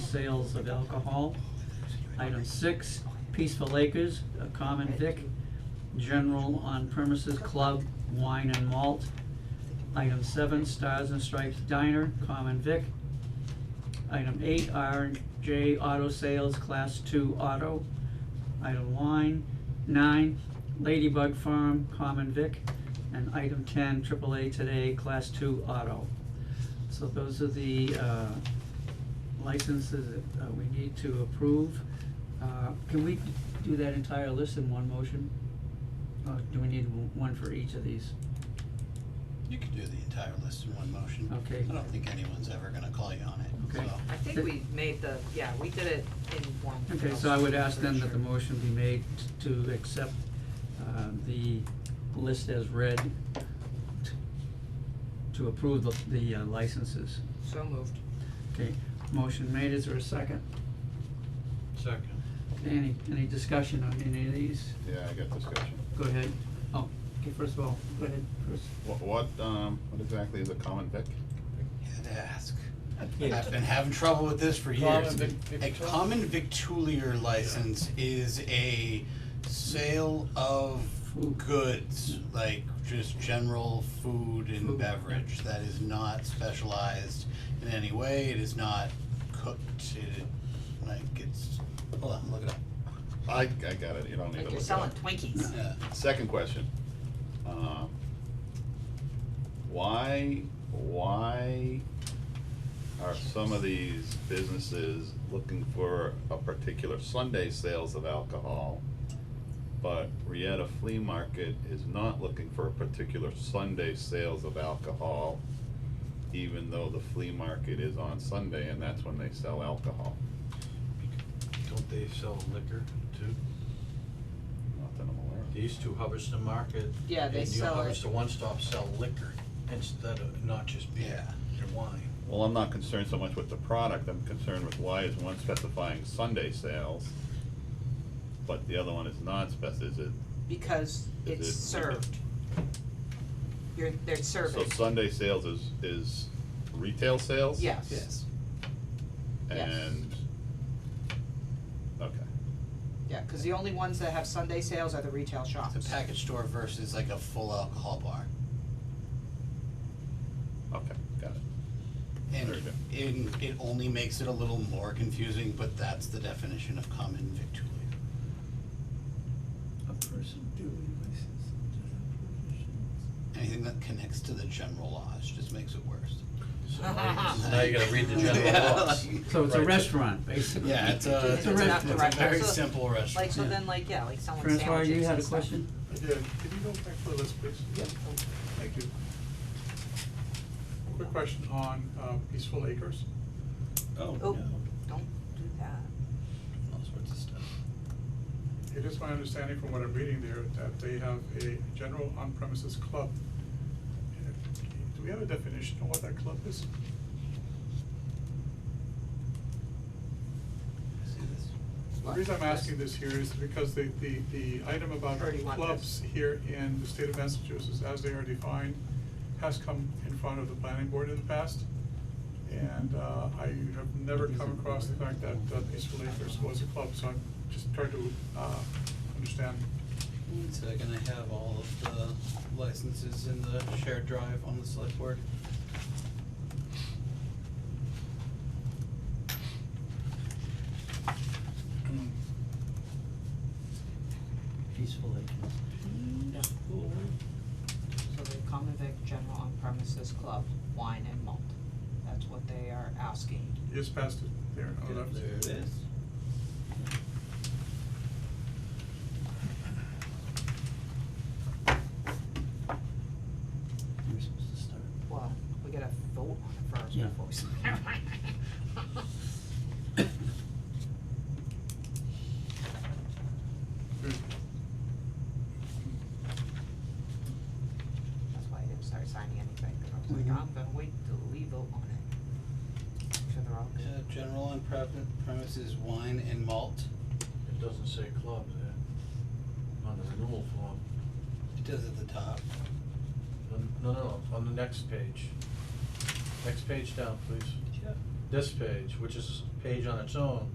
sales of alcohol. Item six, Peaceful Acres, a common vic, general on premises club, wine and malt. Item seven, Stars and Stripes Diner, common vic. Item eight, R and J Auto Sales, class two auto. Item nine, nine, Ladybug Farm, common vic. And item ten, AAA Today, class two auto. So those are the, uh, licenses that uh, we need to approve. Uh, Can we do that entire list in one motion? Or do we need w- one for each of these? You could do the entire list in one motion. Okay. I don't think anyone's ever gonna call you on it, Okay. so. I think we made the, yeah, we did it in one. Okay, so I would ask then that the Pretty sure. motion be made t- to accept uh, the list as read, t- to approve the, the uh, licenses. So moved. Okay, motion made, is there a second? Second. Any, any discussion on any of these? Yeah, I got discussion. Go ahead. Oh, okay, first of all, go ahead, first. What, what, um, what exactly is a common vic? You had to ask. Yeah. I've been having trouble with this for years. Common vic- A victual? common victulier license is a sale of Food. goods, like just general Food, food and yeah. beverage. That is not specialized in any way, it is not cooked, it, like, it's, hold on, look it up. I, I got it, you don't need Like to look you're it selling up. Twinkies. Yeah. Second question. Um, Why, why are some of these businesses looking for a particular Sunday sales of alcohol? But Rieta Flea Market is not looking for a particular Sunday sales of alcohol, even though the flea market is on Sunday and that's when they sell alcohol. Don't they sell liquor too? Not that I'm aware of. They used to Hubbardston Market. Yeah, they and New sell it. Hubbardston One Stop sell liquor instead of not just beer and wine. Well, I'm not concerned so much with the product, I'm concerned with why is one specifying Sunday sales, but the other one is non-spec, is it? Because Is it's it- served. You're, they're So serving. Sunday sales is, is retail sales? Yes. Yes. yes. And, okay, Yeah, cause the only ones that have Sunday sales are the retail shops. It's a package store versus like a full alcohol bar. okay, got it. And Very good. in, it only makes it a little more confusing, but that's the definition of common victualler. A person duly licensed Anything that connects to the general laws just makes it worse. So now you- now you gotta read the general Yeah, laws. like- So it's a Right. restaurant, basically. Yeah, it's a, It's it's a a, restaurant, right? it's a very So- simple restaurant. Like, so Yeah. then like, yeah, like selling sandwiches Francois, you had and a stuff. question? Yeah, can you go back to the list, please? Yep. Thank you. Quick question on uh, Peaceful Acres. Oh, Oh, no, don't do that. all sorts of stuff. It is my understanding from what I'm reading there that they have a general on-premises club. Do we have a definition of what that club is? See this? The reason I'm asking this here is because the, the, the item about Thirty-one clubs here in the state of Massachusetts, as they are defined, has come in front of the planning board in the past. And, uh, I have never come across the fact that uh, Peaceful Acres was a club, so I'm just trying to, uh, understand. One second, I have all of the licenses in the shared drive on the select board. Peaceful agents. So the common vic general on premises club, wine and malt. That's what they are asking. Yes, passed it there, on the left. There it is. You're supposed to start. Well, we gotta vote on it first Yeah. before we sign Good. That's why I didn't start signing anything, 'cause I was Mhm. like, I'm gonna wait till we vote on it. Make sure they're all Yeah, good. Uh, general on prem- premises wine and malt. It doesn't say club there, on the renewal form. It does at the top. No, no, no, on the next page. Next page down, please. This page, which is page on its own,